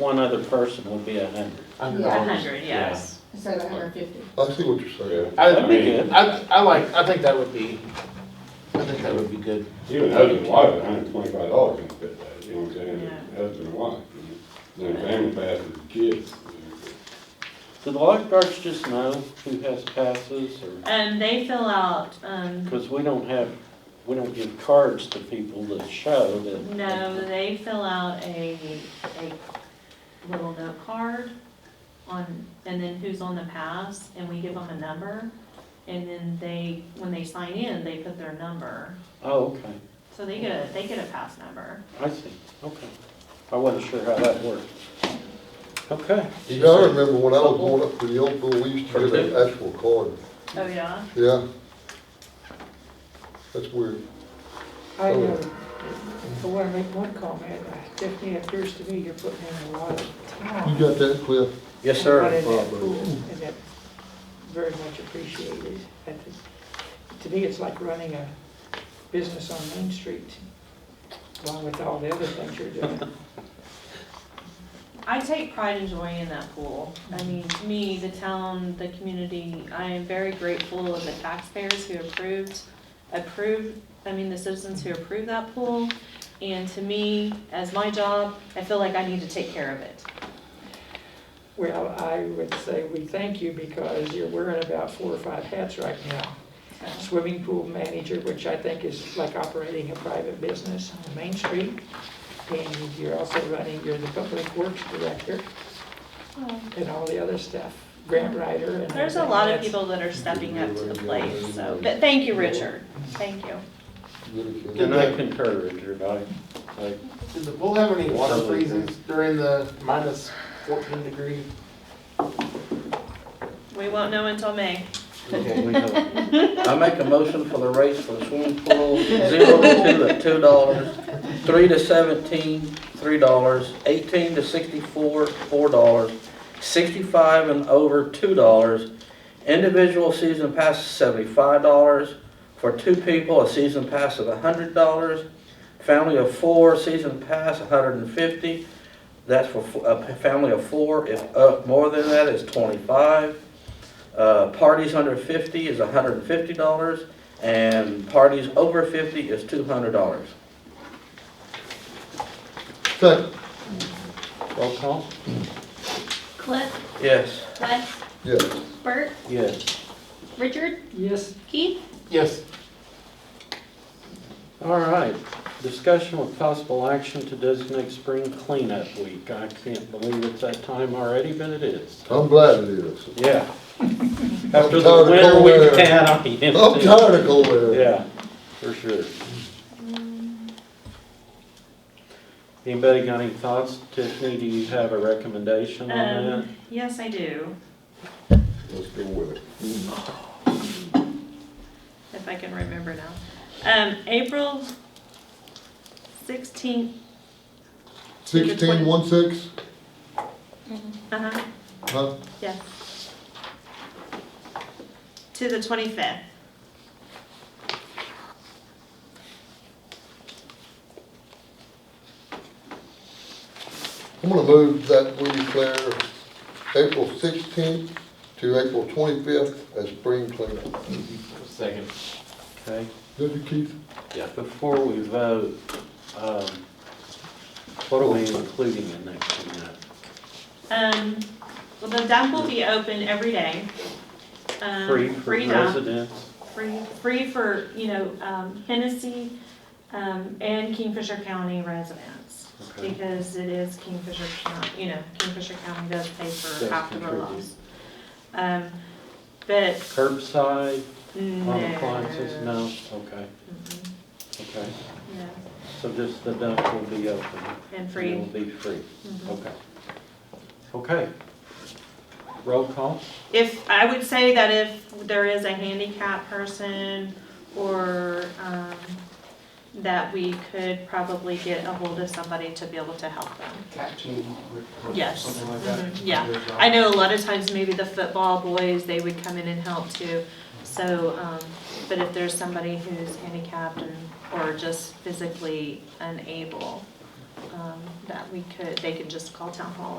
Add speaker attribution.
Speaker 1: one other person would be a hundred.
Speaker 2: Yeah.
Speaker 3: A hundred, yes.
Speaker 2: instead of hundred and fifty.
Speaker 4: I see what you're saying.
Speaker 5: I,
Speaker 1: That'd be good.
Speaker 5: I, I like, I think that would be, I think that would be good.
Speaker 6: Even husband and wife, hundred and twenty-five dollars can fit that, you know what I'm saying?
Speaker 3: Yeah.
Speaker 6: Husband and wife, you know, then family passes, kids.
Speaker 1: Do the lifeguards just know who has passes or,
Speaker 3: Um, they fill out, um,
Speaker 1: because we don't have, we don't give cards to people that show that.
Speaker 3: no, they fill out a, a little note card on, and then who's on the pass, and we give them a number. And then they, when they sign in, they put their number.
Speaker 1: Oh, okay,
Speaker 3: So they get a, they get a pass number.
Speaker 1: I see, okay. I wasn't sure how that worked. Okay.
Speaker 4: Yeah, I remember when I was going up to the old pool, we used to get an actual card.
Speaker 3: Oh, yeah?
Speaker 4: Yeah. That's weird.
Speaker 7: I know, I want to make one comment, Stephanie, it appears to me you're putting in a lot of
Speaker 4: You
Speaker 7: time.
Speaker 4: got that, Cliff?
Speaker 1: Yes,
Speaker 7: And
Speaker 1: sir.
Speaker 7: in that pool, and that's very much appreciated. I think- To me, it's like running a business on Main Street, along with all the other things you're doing.
Speaker 3: I take pride and joy in that pool. I mean, to me, the town, the community, I am very grateful of the taxpayers who approved, approved, I mean, the citizens who approved that pool. And to me, as my job, I feel like I need to take care of it.
Speaker 7: Well, I would say we thank you because you're wearing about four or five hats right now.
Speaker 3: So,
Speaker 7: swimming pool manager, which I think is like operating a private business on Main Street. And you're also running, you're the public works director and all the other stuff, grant writer and.
Speaker 3: There's a
Speaker 7: everything.
Speaker 3: lot of
Speaker 7: That's-
Speaker 3: people that are stepping up to the plate, so, but thank you, Richard. Thank you.
Speaker 4: Good
Speaker 1: And I concur, Richard, I, I,
Speaker 5: Did the pool have any water
Speaker 1: Something.
Speaker 5: freezes during the minus fourteen degree?
Speaker 3: We won't know until May.
Speaker 8: Okay, we have- I make a motion for the rates for the swimming pool, zero to two at two dollars, three to seventeen, three dollars, eighteen to sixty-four, four dollars, sixty-five and over, two dollars, individual season pass seventy-five dollars, for two people, a season pass of hundred dollars, family of four, season pass hundred and fifty, that's for fo- a family of four, if up more than that is twenty-five. Uh, Parties under 50 is $150, and parties over 50 is $200.
Speaker 4: Second,
Speaker 1: roll call?
Speaker 9: Cliff,
Speaker 8: Yes.
Speaker 9: Wes,
Speaker 4: yes.
Speaker 9: Bert,
Speaker 1: Yes.
Speaker 9: Richard,
Speaker 7: Yes,
Speaker 9: Keith,
Speaker 5: Yes.
Speaker 1: All right, discussion with possible action to designate spring cleanup week. I can't believe it's that time already, but it is.
Speaker 4: I'm glad it is.
Speaker 1: Yeah. After
Speaker 4: I'm tired of
Speaker 1: the winter
Speaker 4: cold
Speaker 1: we've
Speaker 4: air.
Speaker 1: had, I mean,
Speaker 4: I'm
Speaker 1: it's-
Speaker 4: tired of cold air.
Speaker 1: Yeah, for sure. Anybody got any thoughts? Tiffany, do you have a recommendation on that?
Speaker 3: Um, yes, I do,
Speaker 4: Let's go with it.
Speaker 3: if I can remember now. Um, April sixteenth
Speaker 4: Sixteen, one, six,
Speaker 3: Uh-huh,
Speaker 4: huh?
Speaker 3: yes. To the twenty-fifth.
Speaker 4: I'm gonna move that we declare April sixteenth to April twenty-fifth as spring cleanup.
Speaker 5: Second.
Speaker 1: Okay,
Speaker 4: Did you, Keith?
Speaker 1: before we vote, um, what are we including in that cleanup?
Speaker 3: Um, well, the dump will be open every day. Um,
Speaker 1: Free for
Speaker 3: dump.
Speaker 1: residents?
Speaker 3: Free, free for, you know, um, Hennessy, um, and Kingfisher County residents.
Speaker 1: Okay.
Speaker 3: Because it is Kingfisher County, you know, Kingfisher County does pay for
Speaker 1: Does
Speaker 3: half of the
Speaker 1: contribute.
Speaker 3: loss. Um, but
Speaker 1: Curbside,
Speaker 3: no.
Speaker 1: home appliances, no, okay,
Speaker 3: Mhm,
Speaker 1: okay.
Speaker 3: No,
Speaker 1: So just the dump will be open?
Speaker 3: and
Speaker 1: It will
Speaker 3: free.
Speaker 1: be free,
Speaker 3: Mhm.
Speaker 1: okay. Okay. Roll call?
Speaker 3: If, I would say that if there is a handicap person or, um, that we could probably get a hold of somebody to be able to help them.
Speaker 5: Captain.
Speaker 3: Yes.
Speaker 5: Something like that.
Speaker 3: Mhm, yeah. I know a lot of times maybe the football boys, they would come in and help too. So, um, but if there's somebody who's handicapped and, or just physically unable, um, that we could, they could just call town hall